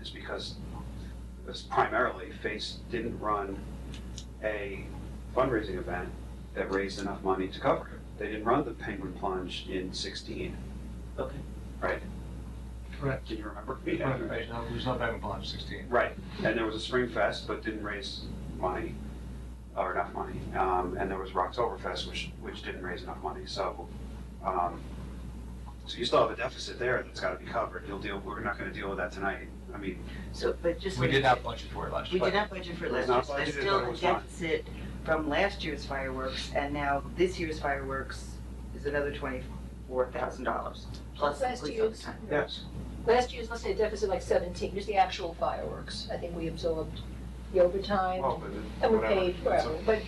is because it was primarily Face didn't run a fundraising event that raised enough money to cover it. They didn't run the Penguin Plunge in sixteen. Okay. Right, Correct. can you remember? Right, right. No, There's no back and blunt, sixteen. Right, and there was a Spring Fest, but didn't raise money, or enough money. Um, and there was Rocktoberfest, which, which didn't raise enough money, so, um, so you still have a deficit there that's gotta be covered. You'll deal, we're not gonna deal with that tonight. I mean, So, but just. We did not budget for it last We year. did not budget for It last was year's, not there's budgeted, still but it a was fine. deficit from last year's fireworks, and now this year's fireworks is another twenty-four thousand dollars, plus Last includes year's. overtime. yes, Last year's, let's say deficit like seventeen, just the actual fireworks. I think we absorbed the overtime well, but and then, we Oh, whatever, paid it's whatever, a- but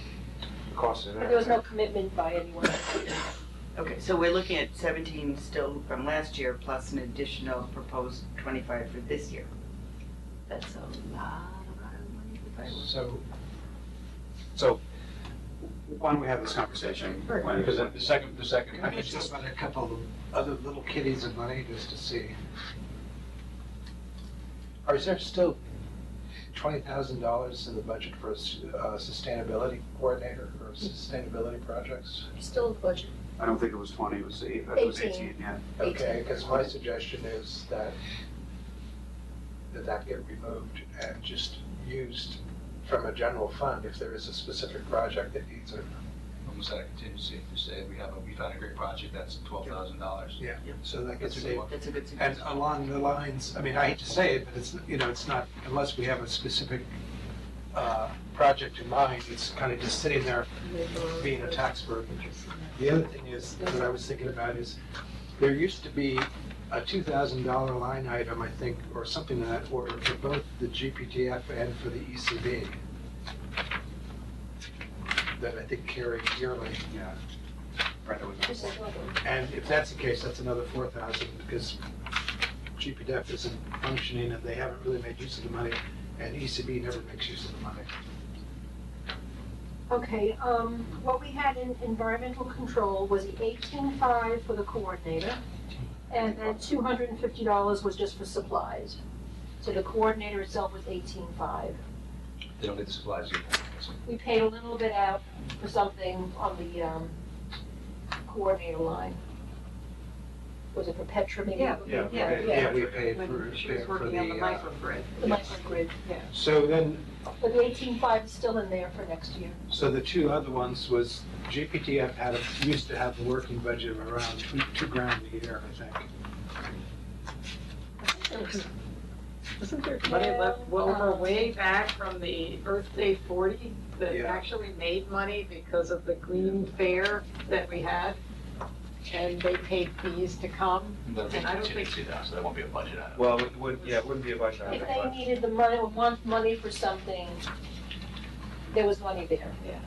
the cost of but that. there was no commitment by anyone. Okay, so we're looking at seventeen still from last year, plus an additional proposed twenty-five for this year. That's a lot, a lot of money for fireworks. So, So, why don't we have this conversation? When- because the second, the second, I mean, it's it's just about a couple of other little kitties of money just to see. Or is there still twenty thousand dollars in the budget for a s- uh, sustainability coordinator or sustainability projects? Still budget, I don't think it was twenty, it was eight, it was Eighteen. eighteen, yeah. Okay, because my suggestion is that, that that get removed and just used from a general fund if there is a specific project that needs it. almost out of contingency, if you say we have a, we found a great project, that's twelve thousand dollars. Yeah. So that gets That's a saved. good one. That's a good And uh, suggestion. along the lines, I mean, I hate to say it, but it's, you know, it's not, unless we have a specific uh, project in mind, it's kind of just sitting there being a tax burden. The other thing is, that I was thinking about is, there used to be a two thousand dollar line item, I think, or something in that order for both the GPTF and for the E ECB. That I think carried yearly. Yeah. Right, that was. just as well. And if that's the case, that's another four thousand, because GPDF isn't functioning and they haven't really made use of the money, and ECB never makes use of the money. Okay, um, what we had in environmental control was the eighteen-five for the coordinator, and then two hundred and fifty dollars was just for supplies. So the coordinator itself was eighteen-five. They don't get the supplies either. So We paid a little bit out for something on the, um, coordinator line. Was it for Petra maybe? Yeah. Yeah. Yeah, okay. Yeah, we paid for, She was for working on the the, uh, microgrid. The microgrid, yeah. so then, But the eighteen-five is still in there for next year. so the two other ones was GPTF had, a- used to have a working budget of around two, two grand a year, I think. Isn't there money left over way back from the Earth Day forty that Yeah. actually made money because of the green fair that we had? And they paid fees to come? That'll be And I don't contingency though, so that won't be a budget item. Well, it would, yeah, it wouldn't be a budget item, If but- they needed the money, or want money for something, there was money there. Yeah.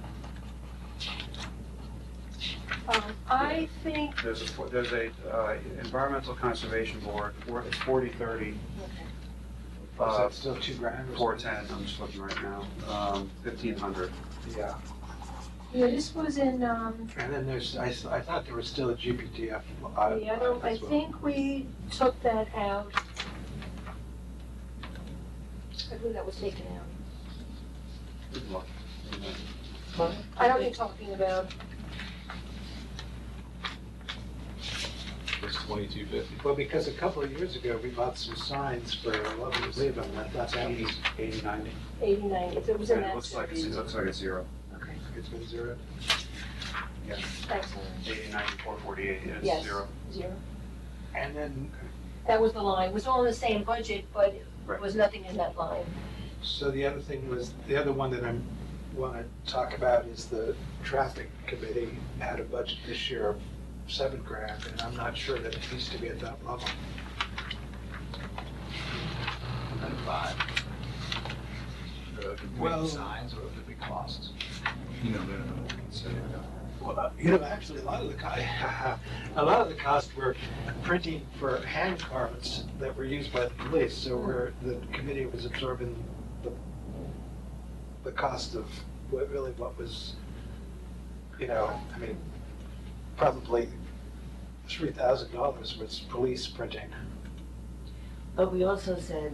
Um, I think, There's a, fo- there's a uh, environmental conservation board, for- it's forty thirty, Is uh, that still two grand or four something? ten, I'm just looking right now, Um, fifteen hundred. Yeah, yeah, this was in, um, and then there's, I, s- I thought there was still a GPTF. uh, the other, I as well. think we took that out. I believe that was taken out. I know what you're talking about, It's twenty-two fifty. Well, because a couple of years ago, we bought some signs for Love and Leave, and I thought that was, Eighty, ninety. eighty-nine, if it was in And it that looks like, it's- series. it looks like a zero. it's been zero. Thanks, Ellen. Eighty, ninety, four forty-eight, it's Yes. zero. Zero. And then, That was the line, it was all in the same budget, but Right. it was nothing in that line. so the other thing was, the other one that I'm, want to talk about is the traffic committee had a budget this year of seven grand, and I'm not sure that it needs to be at that level. And five. Or could we Well- make Signs or could we costs? You know, they're not- so, Well, uh, you know, actually, a lot of the, co- a lot of the costs were printing for hand carts that were used by the police, so where the committee was absorbing the, the cost of what really what was, you know, I mean, probably three thousand dollars was police printing. But we also said